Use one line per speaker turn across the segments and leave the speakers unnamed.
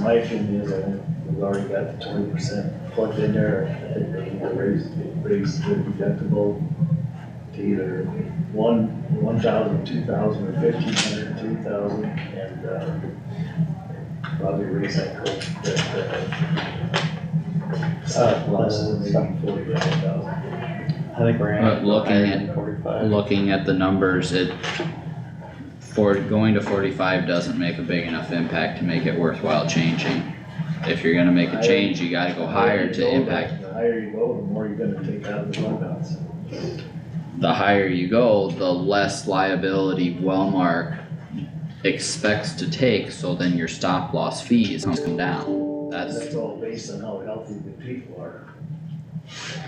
my opinion is, I think we've already got the twenty percent plugged in there, I think we need to raise, raise the deductible to either one, one thousand, two thousand, or fifteen hundred, three thousand, and, uh, probably raise that code, that, uh, uh, less than maybe forty-five thousand.
I think we're
But
at
looking
higher
at-
than forty-five.
Looking at the numbers, it, for, going to forty-five doesn't make a big enough impact to make it worthwhile changing. If you're gonna make a change, you gotta go higher to impact.
The higher you go, the more you're gonna take out of the fund balance.
The higher you go, the less liability Wellmark expects to take, so then your stop loss fees come down. That's,
That's all based on how healthy the people are.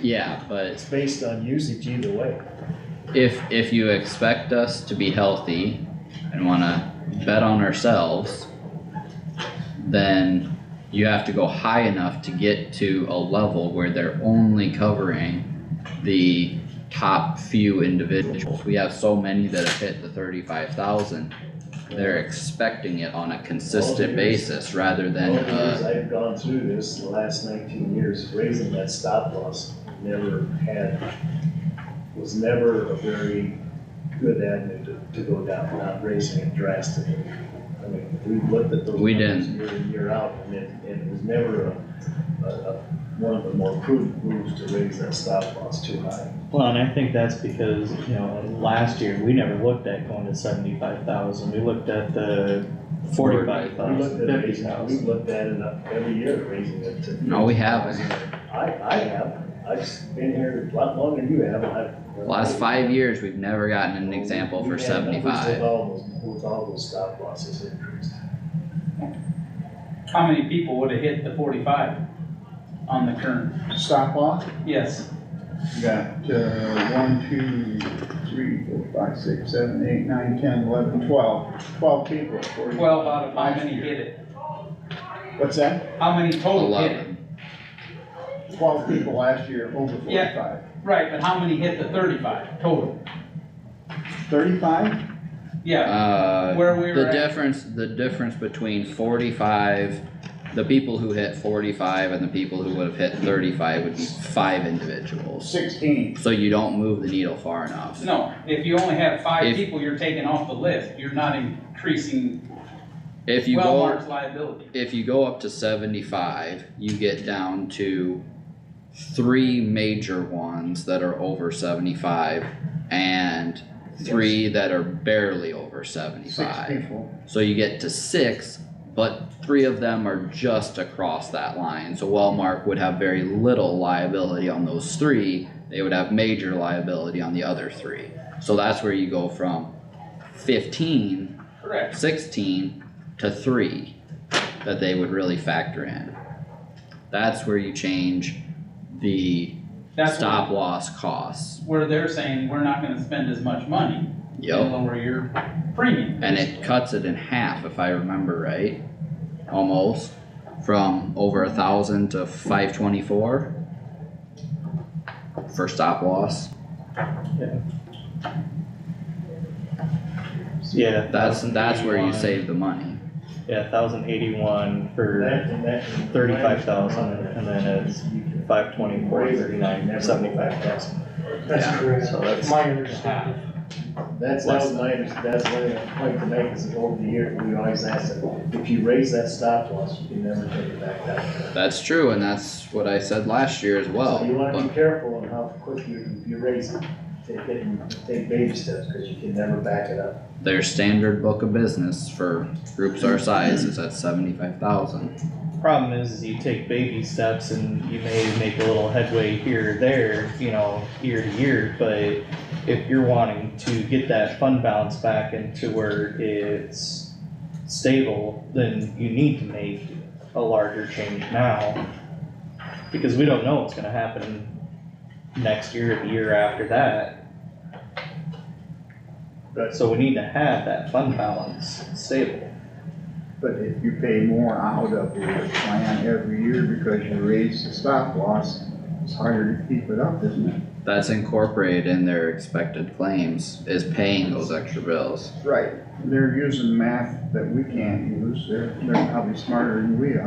yeah, but
It's based on usage either way.
if, if you expect us to be healthy and wanna bet on ourselves, then you have to go high enough to get to a level where they're only covering the top few individuals. We have so many that have hit the thirty-five thousand, they're expecting it on a consistent basis rather than,
All the years
uh,
I've gone through this, the last nineteen years, raising that stop loss, never had, was never a very good avenue to, to go down, not raising it drastically. I mean, we looked at those.
We
numbers
didn't.
Year in, year out, and it, and it was never a, a, a, one of the more prudent moves to raise that stop loss too high.
Well, and I think that's because, you know, last year, we never looked at going to seventy-five thousand, we looked at the forty-five
We looked
thousand,
at
fifty
raising, we
thousand.
looked at it up every year, raising it to.
no, we haven't.
I, I have, I've s- been here a lot longer than you have, I've.
Last five years, we've never gotten an example
We've
for
had numbers With
seventy-five.
all those, with all those stop losses increased.
How many people would have hit the forty-five on the current?
Stop loss,
Yes,
you got, uh, one, two, three, four, five, six, seven, eight, nine, ten, eleven, twelve. Twelve people at forty.
twelve out of how many hit it?
What's that?
How many total hit it?
Eleven.
Twelve people last year over
Yeah.
forty-five.
Right, but how many hit the thirty-five total?
Thirty-five?
Yeah,
Uh,
where we were
The
at,
difference, the difference between forty-five, the people who hit forty-five and the people who would have hit thirty-five would be five individuals.
Sixteen.
So you don't move the needle far enough.
no, if you only have five
If-
people, you're taking off the list, you're not increasing
If you go,
Wellmark's liability.
if you go up to seventy-five, you get down to three major ones that are over seventy-five and three that are barely over
Six
seventy-five.
people.
So you get to six, but three of them are just across that line, so Wellmark would have very little liability on those three. They would have major liability on the other three, so that's where you go from 15, 16
Correct,
to three that they would really factor in. That's where you change the
that's
stop loss costs,
where they're saying, we're not gonna spend as much money to
yep,
lower your premium.
and it cuts it in half if I remember right, almost. from over a thousand to five twenty-four for stop loss.
Yeah.
That's, that's where you
1,081.
save the money.
Yeah, thousand eighty-one for
That, and that. and
35,000, and then it's
You can
five twenty-four,
raise it, you
thirty-nine,
never
seventy-five.
go back past it.
Yeah.
That's correct.
So that's-
My understanding.
That's, that was my, under- that's my point to make, is that over the year, we always ask that, if you raise that stop loss, you can never take it back down.
That's true, and that's what I said last year as well.
So you wanna be
But
careful on how quick you, you raise it, take, it and take baby steps, cause you can never back it up.
their standard book of business for groups our size is at seventy-five thousand.
Problem is, is you take baby steps and you may make a little headway here or there, you know, year to year, but if you're wanting to get that fund balance back into where it's stable, then you need to make a larger change now. Because we don't know what's gonna happen next year or the year after that.
Right.
So we need to have that fund balance stable.
But if you pay more out of your plan every year because you raise the stop loss, it's harder to keep it up, isn't it?
That's incorporated in their expected claims, is paying those extra bills.
Right. They're using math that we can't use. They're, they're probably smarter than we are.